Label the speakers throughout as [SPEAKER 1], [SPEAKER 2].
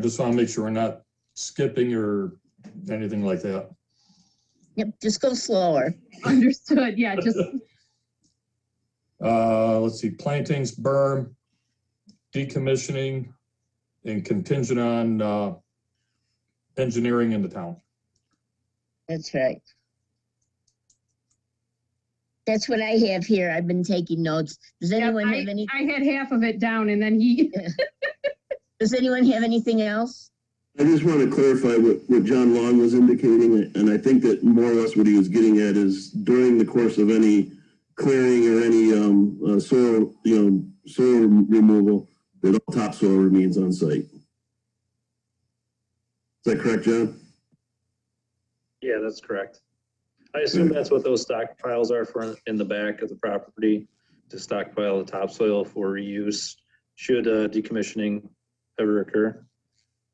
[SPEAKER 1] just want to make sure we're not skipping or anything like that.
[SPEAKER 2] Yep, just go slower.
[SPEAKER 3] Understood, yeah, just,
[SPEAKER 1] Uh, let's see, plantings, berm, decommissioning, and contingent on, uh, engineering in the town.
[SPEAKER 2] That's right. That's what I have here. I've been taking notes. Does
[SPEAKER 3] yeah,
[SPEAKER 2] anyone have
[SPEAKER 3] I
[SPEAKER 2] any,
[SPEAKER 3] I had half of it down and then he,
[SPEAKER 2] does anyone have anything else?
[SPEAKER 4] I just want to clarify what, what John Long was indicating, and I think that more or less what he was getting at is during the course of any clearing or any, um, uh, soil, you know, soil removal, that all topsoil remains on site. Is that correct, John?
[SPEAKER 5] Yeah, that's correct. I assume that's what those stockpiles are for in the back of the property, to stockpile the topsoil for reuse should uh, decommissioning ever occur,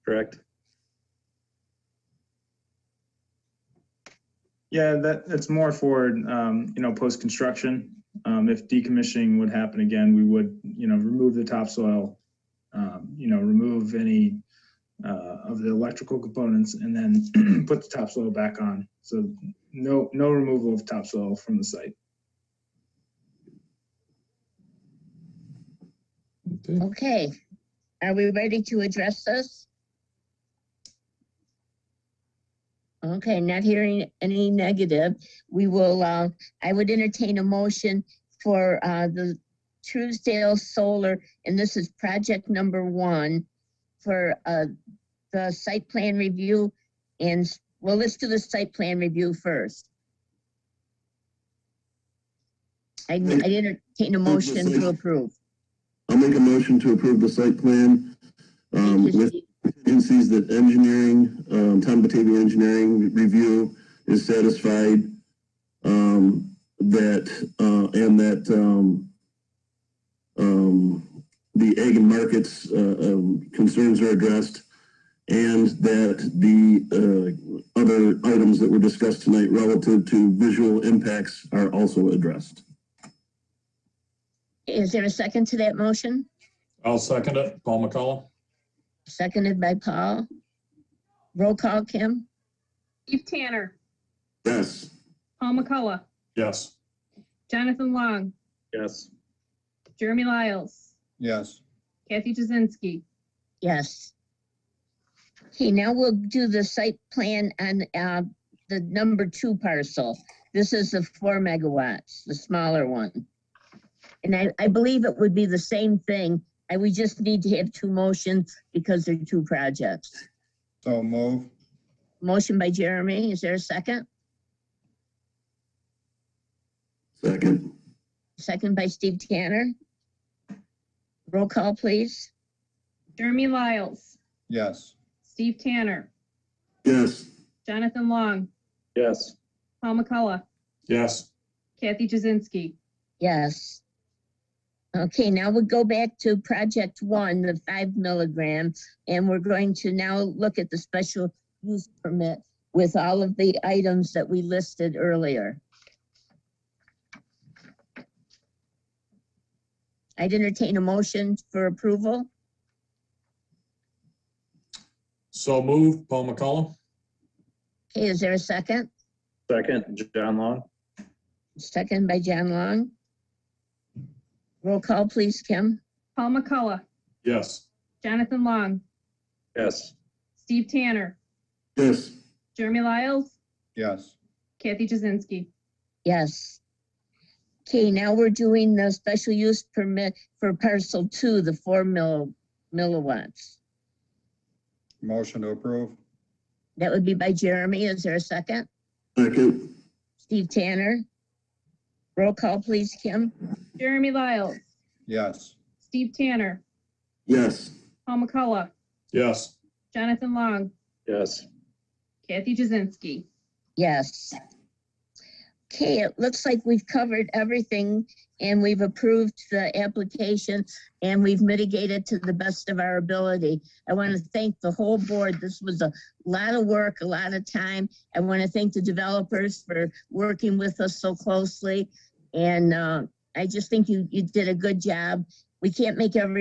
[SPEAKER 5] correct?
[SPEAKER 6] Yeah, that, that's more for, um, you know, post-construction. Um, if decommissioning would happen again, we would, you know, remove the topsoil, um, you know, remove any, uh, of the electrical components and then put the topsoil back on. So no, no removal of topsoil from the site.
[SPEAKER 1] Okay.
[SPEAKER 2] Okay. Are we ready to address this? Okay, not hearing any negative. We will, uh, I would entertain a motion for, uh, the Truesdale Solar, and this is project number one for, uh, the site plan review and, well, let's do the site plan review first. I, I entertain a motion to approve.
[SPEAKER 4] I'll make a motion to approve the site plan, um,
[SPEAKER 2] Thank you,
[SPEAKER 4] with
[SPEAKER 2] Steve.
[SPEAKER 4] agencies that engineering, um, Tom Batavia Engineering Review is satisfied, um, that, uh, and that, um, um, the egg and markets, uh, um, concerns are addressed, and that the, uh, other items that were discussed tonight relative to visual impacts are also addressed.
[SPEAKER 2] Is there a second to that motion?
[SPEAKER 1] I'll second it. Paul McCollum?
[SPEAKER 2] Seconded by Paul. Roll call, Kim?
[SPEAKER 3] Steve Tanner,
[SPEAKER 4] Yes.
[SPEAKER 3] Paul McCullough,
[SPEAKER 1] Yes.
[SPEAKER 3] Jonathan Long,
[SPEAKER 5] Yes.
[SPEAKER 3] Jeremy Lyles,
[SPEAKER 7] yes.
[SPEAKER 3] Kathy Jazinski.
[SPEAKER 2] Yes. Okay, now we'll do the site plan on uh, the number two parcel. This is the four megawatts, the smaller one. And I, I believe it would be the same thing. I, we just need to have two motions because they're two projects.
[SPEAKER 7] So move,
[SPEAKER 2] Motion by Jeremy, is there a second?
[SPEAKER 4] Second.
[SPEAKER 2] Second by Steve Tanner. Roll call, please.
[SPEAKER 3] Jeremy Lyles,
[SPEAKER 7] yes.
[SPEAKER 3] Steve Tanner,
[SPEAKER 4] Yes.
[SPEAKER 3] Jonathan Long,
[SPEAKER 5] Yes.
[SPEAKER 3] Paul McCullough,
[SPEAKER 1] Yes.
[SPEAKER 3] Kathy Jazinski.
[SPEAKER 2] Yes. Okay, now we go back to project one, the five milligram, and we're going to now look at the special use permit with all of the items that we listed earlier. I'd entertain a motion for approval.
[SPEAKER 1] So moved. Paul McCollum?
[SPEAKER 2] Okay, is there a second?
[SPEAKER 5] Second, John Long?
[SPEAKER 2] Second by John Long. Roll call, please, Kim.
[SPEAKER 3] Paul McCullough,
[SPEAKER 1] Yes.
[SPEAKER 3] Jonathan Long,
[SPEAKER 5] Yes.
[SPEAKER 3] Steve Tanner,
[SPEAKER 4] Yes.
[SPEAKER 3] Jeremy Lyles,
[SPEAKER 7] Yes,
[SPEAKER 3] Kathy Jazinski.
[SPEAKER 2] Yes. Okay, now we're doing the special use permit for parcel two, the four mil, milliwatts.
[SPEAKER 7] motion to approve,
[SPEAKER 2] That would be by Jeremy. Is there a second?
[SPEAKER 4] Second.
[SPEAKER 2] Steve Tanner? Roll call, please, Kim?
[SPEAKER 3] Jeremy Lyles,
[SPEAKER 7] yes.
[SPEAKER 3] Steve Tanner,
[SPEAKER 4] Yes.
[SPEAKER 3] Paul McCullough,
[SPEAKER 1] Yes.
[SPEAKER 3] Jonathan Long,
[SPEAKER 5] Yes.
[SPEAKER 3] Kathy Jazinski.
[SPEAKER 2] Yes. Okay, it looks like we've covered everything and we've approved the application and we've mitigated to the best of our ability. I want to thank the whole board. This was a lot of work, a lot of time. I want to thank the developers for working with us so closely. And uh, I just think you, you did a good job. We can't make every